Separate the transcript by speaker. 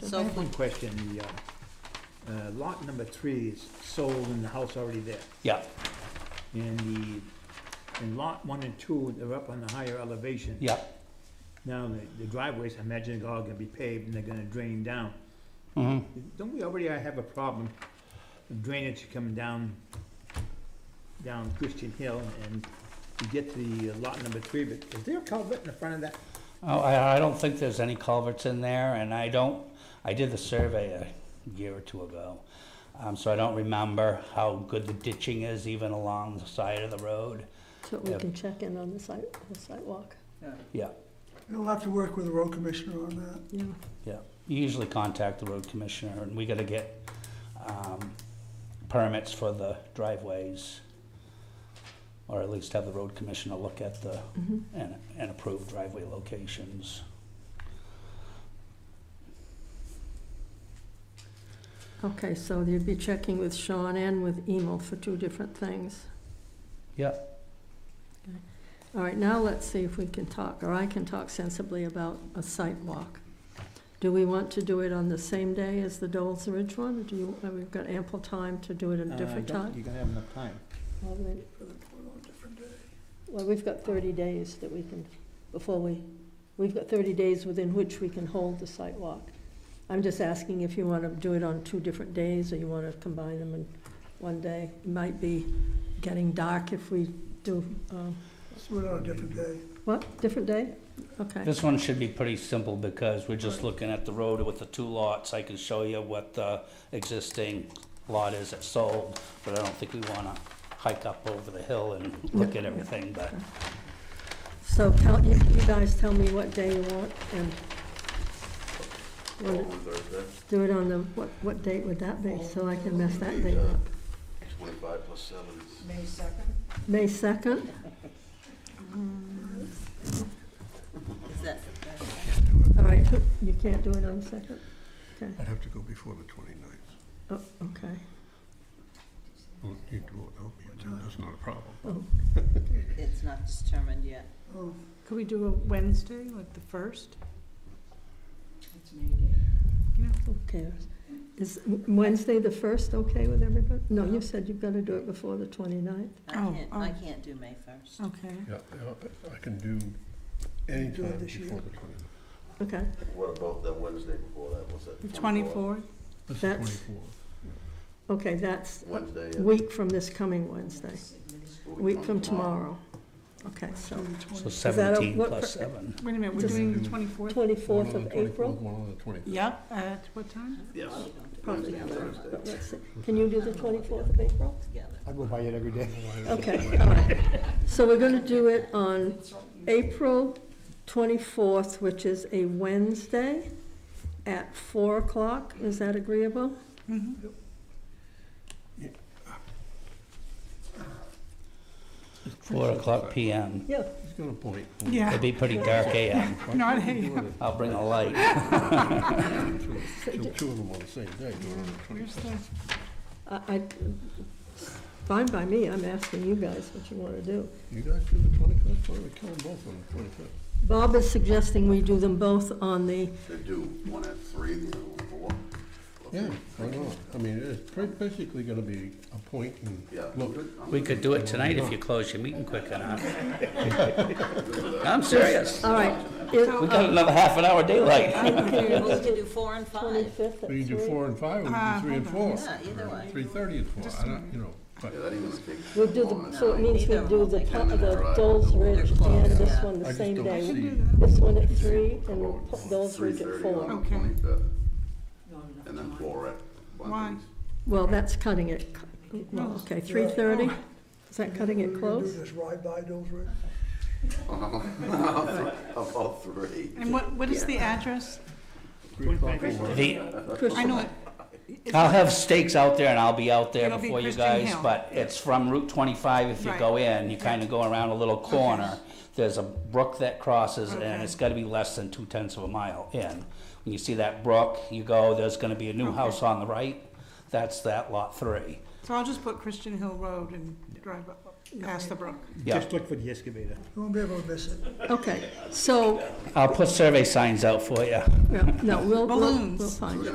Speaker 1: So
Speaker 2: So,
Speaker 1: one question, the, uh, uh, lot number three is sold and the house already there.
Speaker 3: Yeah,
Speaker 1: And the, and lot one and two, they're up on the higher elevation.
Speaker 3: yeah.
Speaker 1: Now, the- the driveways, I imagine they're all gonna be paved and they're gonna drain down.
Speaker 3: Mhm.
Speaker 1: Don't we already have a problem of drainage coming down, down Christian Hill and you get to the uh, lot number three, but is there a culvert in the front of that?
Speaker 3: Oh, I, I don't think there's any culverts in there, and I don't, I did the survey a year or two ago. Um, so I don't remember how good the ditching is even along the side of the road.
Speaker 2: so we
Speaker 3: Yeah.
Speaker 2: can check in on the site, the sidewalk.
Speaker 3: Yeah,
Speaker 4: You'll have to work with the road commissioner on that.
Speaker 2: Yeah,
Speaker 3: yeah. You usually contact the road commissioner, and we gotta get, um, permits for the driveways. Or at least have the road commissioner look at the,
Speaker 2: mm-hmm.
Speaker 3: and, and approve driveway locations.
Speaker 2: okay, so you'd be checking with Sean and with Emil for two different things.
Speaker 3: Yeah.
Speaker 2: Okay. All right, now let's see if we can talk, or I can talk sensibly about a site walk. Do we want to do it on the same day as the Dole's Ridge one? Do you, uh, we've got ample time to do it
Speaker 3: Uh,
Speaker 2: at a different time?
Speaker 1: Uh, You're gonna have enough time.
Speaker 2: Well, we-
Speaker 4: For the board on a different day.
Speaker 2: Well, we've got thirty days that we can, before we, we've got thirty days within which we can hold the site walk. I'm just asking if you want to do it on two different days, or you want to combine them in one day. It might be getting dark if we do, um,
Speaker 4: Let's do it on a different day.
Speaker 2: what, different day? Okay,
Speaker 3: This one should be pretty simple because we're just looking at the road with the two lots. I can show you what the existing lot is that's sold, but I don't think we wanna hike up over the hill and look at everything, but
Speaker 2: so tell, you, you guys tell me what day you want, and want to
Speaker 5: Thursday,
Speaker 2: do it on the, what, what date would that be, so I can mess that date up?
Speaker 5: twenty-five plus seven is
Speaker 6: May second?
Speaker 2: May second?
Speaker 6: Is that
Speaker 2: All right, you can't do it on the second? Okay,
Speaker 7: I'd have to go before the 29th.
Speaker 2: oh, okay.
Speaker 7: Well, you do it without me, then that's not a problem.
Speaker 6: Oh. It's not determined yet.
Speaker 4: Oh,
Speaker 8: Could we do a Wednesday, like the first?
Speaker 6: It's May Day.
Speaker 2: Who cares? Is Wednesday the first okay with everybody? No, you said you've got to do it before the 29th.
Speaker 6: I
Speaker 8: Oh,
Speaker 6: can't, I
Speaker 8: oh.
Speaker 6: can't do May first.
Speaker 8: Okay.
Speaker 7: Yeah, yeah, I can do any
Speaker 4: Do it
Speaker 7: time
Speaker 4: this year.
Speaker 7: before the
Speaker 2: Okay,
Speaker 5: What about that Wednesday before that, what's that?
Speaker 8: The
Speaker 5: 24th?
Speaker 8: twenty-fourth?
Speaker 7: 29th.
Speaker 2: That's-
Speaker 7: That's the 24th.
Speaker 2: okay, that's a
Speaker 5: Wednesday, yeah.
Speaker 2: week from this coming Wednesday,
Speaker 5: A
Speaker 2: week from tomorrow. Okay, so
Speaker 4: Wednesday the
Speaker 3: so
Speaker 2: that a-
Speaker 4: 20th.
Speaker 3: seventeen
Speaker 2: what
Speaker 3: plus
Speaker 2: per-
Speaker 3: seven.
Speaker 8: Wait a minute, we're
Speaker 2: Just-
Speaker 8: doing the twenty-fourth?
Speaker 2: 24th
Speaker 7: One on
Speaker 2: of
Speaker 7: the 24th,
Speaker 2: April?
Speaker 7: One on the 25th.
Speaker 8: Yep, at what time?
Speaker 5: Yes.
Speaker 2: Probably
Speaker 5: Wednesday and
Speaker 2: not.
Speaker 5: Thursday.
Speaker 2: But let's see. Can you do the 24th of April?
Speaker 6: Together.
Speaker 1: I go by it every day.
Speaker 2: Okay, all right. So we're going to do it on April 24th, which is a Wednesday at 4 o'clock. Is that agreeable?
Speaker 8: Mm-hmm,
Speaker 3: Four o'clock PM.
Speaker 2: Yeah.
Speaker 7: He's got a point.
Speaker 8: Yeah,
Speaker 3: It'd be pretty dark AM.
Speaker 7: Why
Speaker 8: Not
Speaker 7: can't we do it
Speaker 3: I'll bring a light.
Speaker 7: at two- Till two of them on the same day, do it on the
Speaker 8: where's
Speaker 7: 25th.
Speaker 8: the,
Speaker 2: I, I, fine by me, I'm asking you guys what you wanna do.
Speaker 7: You guys do the 25th, why don't we kill them both on the 25th?
Speaker 2: Bob is suggesting we do them both on the,
Speaker 5: They do one at three, the other one at four.
Speaker 7: Yeah, why not? I mean, it's pretty- basically gonna be a point and
Speaker 5: Yeah.
Speaker 7: look.
Speaker 3: We could do it tonight if you close your meeting quick enough. I'm serious.
Speaker 2: all right.
Speaker 3: We got another half an hour daylight.
Speaker 6: We can do four and five.
Speaker 2: Twenty-fifth at
Speaker 7: We can do
Speaker 2: three.
Speaker 7: four and five, we can
Speaker 8: Ah,
Speaker 7: do three and four.
Speaker 6: Yeah, either way.
Speaker 7: Three thirty and four, I don't, you know, but
Speaker 5: Yeah, that ain't gonna take.
Speaker 2: We'll do
Speaker 5: long,
Speaker 2: the,
Speaker 5: that's
Speaker 2: so it
Speaker 5: fine.
Speaker 2: means we do the, top of the Dole's Ridge and this one
Speaker 7: I
Speaker 2: the
Speaker 7: just
Speaker 2: same
Speaker 7: don't
Speaker 2: day.
Speaker 7: see.
Speaker 2: This one at three and we'll put Dole's Ridge at
Speaker 5: 3:30 on the
Speaker 2: four.
Speaker 8: Okay.
Speaker 5: 25th, And then four at
Speaker 8: Why?
Speaker 5: Bunting's.
Speaker 2: Well, that's cutting it, c- well, okay, three thirty? Is that cutting
Speaker 4: We're
Speaker 2: it
Speaker 4: gonna
Speaker 2: close?
Speaker 4: Do this ride by Dole's Ridge?
Speaker 5: About oh, three.
Speaker 8: and what, what is the address?
Speaker 3: The,
Speaker 8: I know, it-
Speaker 3: I'll have stakes out there and I'll be out there
Speaker 8: It'll be
Speaker 3: before you
Speaker 8: Christian
Speaker 3: guys,
Speaker 8: Hill.
Speaker 3: but it's from Route twenty-five, if you
Speaker 8: Right.
Speaker 3: go in, you kinda go around a little corner. There's a brook that crosses and
Speaker 8: Okay.
Speaker 3: it's gotta be less than two tenths of a mile in. When you see that brook, you go, there's gonna be a new house on the right, that's that lot three.
Speaker 8: so I'll just put Christian Hill Road and drive up. past the brook.
Speaker 3: Yeah.
Speaker 1: Just look for the excavator.
Speaker 4: You won't be able to miss it.
Speaker 2: Okay, so,
Speaker 3: I'll put survey signs out for you.
Speaker 2: yeah, no, we'll, we'll, we'll
Speaker 8: Balloons.
Speaker 2: find it.